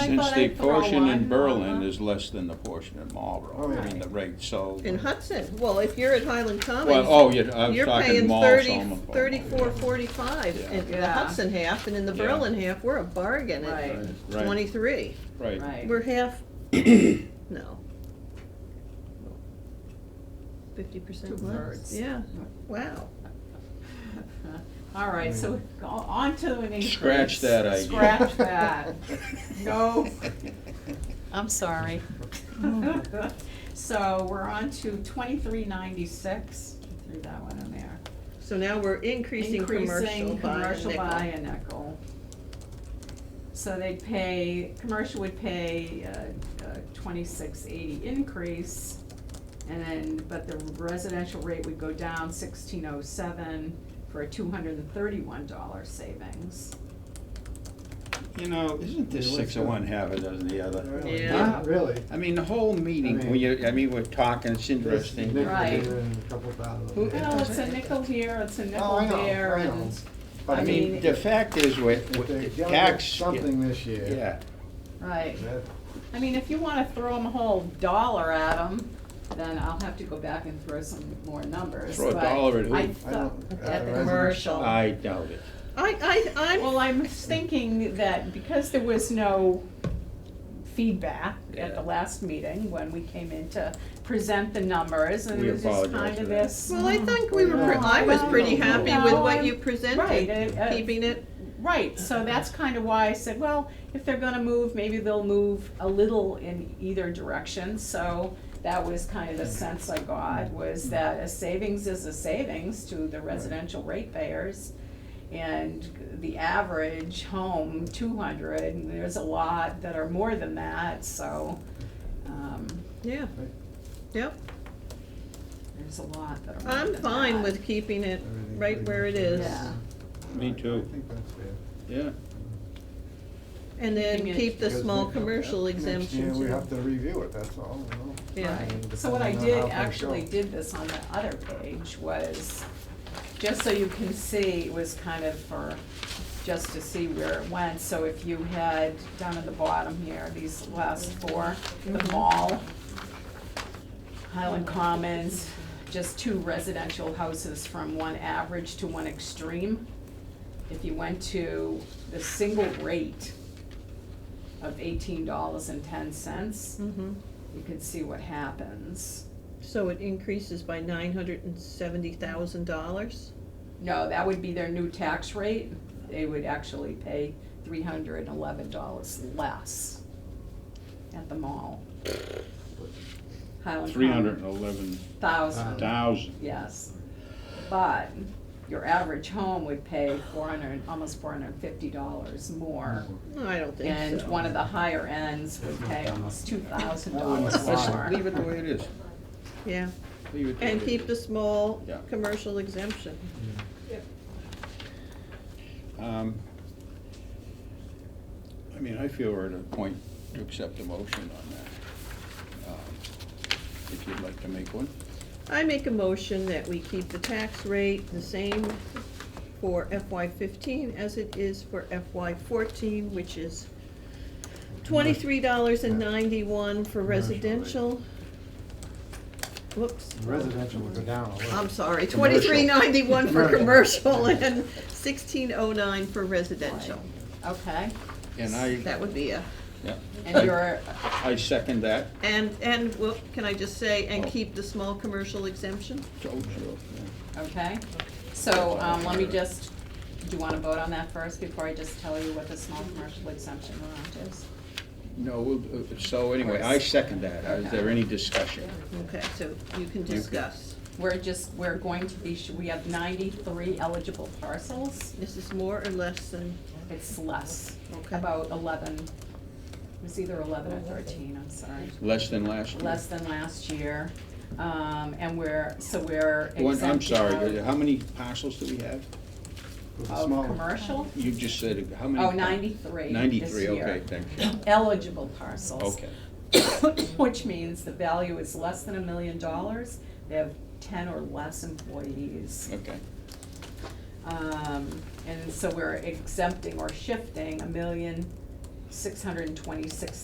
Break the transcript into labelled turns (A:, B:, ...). A: Since
B: thought
A: the
B: I'd throw
A: portion in
B: one.
A: Berlin is less than the portion in Marlboro, I mean, the rate, so.
C: In Hudson, well, if you're at Highland
A: Well,
C: Commons,
A: oh, yeah, I was
C: you're
A: talking
C: paying
A: malls.
C: thirty,
A: almost, but-
C: thirty-four, forty-five
A: Yeah.
C: in the
B: Yeah.
C: Hudson half, and in the
A: Yeah.
C: Berlin half, we're a bargain at
B: Right,
A: Right,
C: twenty-three.
A: Right,
B: right.
C: We're half, no. Fifty percent less,
B: Two-thirds.
C: yeah, wow.
B: All right, so go on to an increase.
A: Scratch that idea.
B: Scratch that. No.
D: I'm sorry.
B: So we're on to twenty-three ninety-six, threw that one in there.
C: So now we're increasing commercial
B: Increasing
C: by a
B: commercial by
C: nickel.
B: a nickel. So they'd pay, commercial would pay uh, a twenty-six eighty increase, and then, but the residential rate would go down sixteen oh seven for a two hundred and thirty-one dollar savings.
A: you know, isn't this
E: Yeah,
A: six
E: what's
A: of
E: that?
A: one half a dozen the other?
E: Really?
C: Yeah.
E: Not Really.
A: I mean, the whole meeting,
E: I
A: when
E: mean-
A: you, I mean, we're talking, it's interesting.
E: Nickel
B: Right.
E: here and a couple thousand
A: Who-
E: there.
B: Well, Oh, it's a nickel here, it's a nickel
E: Oh, I know,
B: there,
E: I
B: and,
E: know. But
A: I mean, the fact is, with,
E: If they're
A: with
E: gonna get
A: tax.
E: something this year.
A: Yeah,
B: right.
E: that-
B: I mean, if you wanna throw them a whole dollar at them, then I'll have to go back and throw some more numbers,
A: Throw a
B: but
A: dollar at who?
B: I
A: I
B: thought,
E: don't-
B: at the
E: uh,
B: commercial.
A: I doubt it.
C: I, I, I'm,
B: Well, I'm thinking that because there was no feedback at the
A: Yeah.
B: last meeting, when we came in to present the numbers, and
A: We
B: it was just
A: apologize
B: kind of
A: for that.
B: this. mm,
C: well, I think we were, pre- I was pretty
E: No,
C: happy
B: no,
C: with
B: no,
C: what
B: I'm-
C: you
B: Right,
C: presented,
B: it- uh,
C: keeping it,
B: Right, so that's kind of why I said, well, if they're gonna move, maybe they'll move a little in either direction, so that was kind of the sense I got, was that a savings is a savings to the residential ratepayers. And the average home, two hundred, and there's a lot that are more than that, so, um,
C: yeah, yep.
B: there's a lot that are more than
C: I'm
B: that.
C: fine with keeping it
E: everything
C: right
E: pretty
C: where
E: much
C: it is.
B: Yeah.
A: Me too.
E: I think that's fair.
A: Yeah,
C: And then
B: Keeping it-
C: keep the
E: Because
C: small
E: next-
C: commercial
E: next year
C: exemptions.
E: we have to review it, that's all, you know?
C: Yeah.
B: Right.
E: And
B: So what I
E: depending on
B: did,
E: how things
B: actually
E: go.
B: did this on the other page was, just so you can see, it was kind of for, just to see where it went. So if you had, down at the bottom here, these last four, the
E: Mm-hmm.
B: mall, Highland Commons, just two residential houses from one average to one extreme. If you went to the single rate of eighteen dollars and ten cents,
C: Mhm.
B: you can see what happens.
C: So it increases by nine hundred and seventy thousand dollars?
B: No, that would be their new tax rate. They would actually pay three hundred and eleven dollars less at the mall. Highland
F: Three hundred and eleven
B: Thousand,
F: thousand.
B: yes. But your average home would pay four hundred, almost four hundred and fifty dollars more.
C: I don't think
B: And
C: so.
B: one of the higher ends would pay almost two
C: Oh,
B: thousand
E: That wouldn't
B: dollars
E: fly.
B: more.
A: leave it the way it is.
C: Yeah,
A: Leave it the
C: and
A: way it
C: keep the
A: is.
C: small
A: Yeah.
C: commercial exemption.
A: Um, I mean, I feel we're at a point to accept a motion on that. Um, If you'd like to make one.
C: I make a motion that we keep the tax rate the same for FY fifteen as it is for FY fourteen, which is twenty-three dollars and ninety-one for residential. Whoops.
E: Residential would go down a little.
C: I'm sorry, twenty-three ninety-one for commercial and sixteen oh nine for residential.
B: Okay,
A: And I,
C: That would be a,
A: yeah,
B: and your,
A: I second that.
C: and, and, well, can I just say, and
A: Oh.
C: keep the small commercial exemption?
A: So, so,
B: Okay, so, um, let me just, do you wanna vote on that first before I just tell you what the small commercial exemption amount is?
A: No, we'll- uh, so anyway, I second that. Is there any discussion?
C: Okay, so you can discuss.
B: We're just, we're going to be, we have ninety-three eligible parcels,
C: This is more or less than,
B: it's less,
C: Okay.
B: about eleven, it was either eleven or thirteen, I'm sorry,
A: Less than last year?
B: less than last year. Um, and we're, so we're
A: One-
B: exempting
A: I'm sorry, uh,
B: out
A: how many parcels do we have?
E: With the
B: of
E: small-
B: commercial,
A: You just said, how many?
B: oh, ninety-three this
A: Ninety-three,
B: year.
A: okay, thank you.
B: Eligible parcels.
A: Okay.
B: which means the value is less than a million dollars. They have ten or less employees.
A: Okay,
B: Um, and so we're exempting or shifting a million six hundred and twenty-six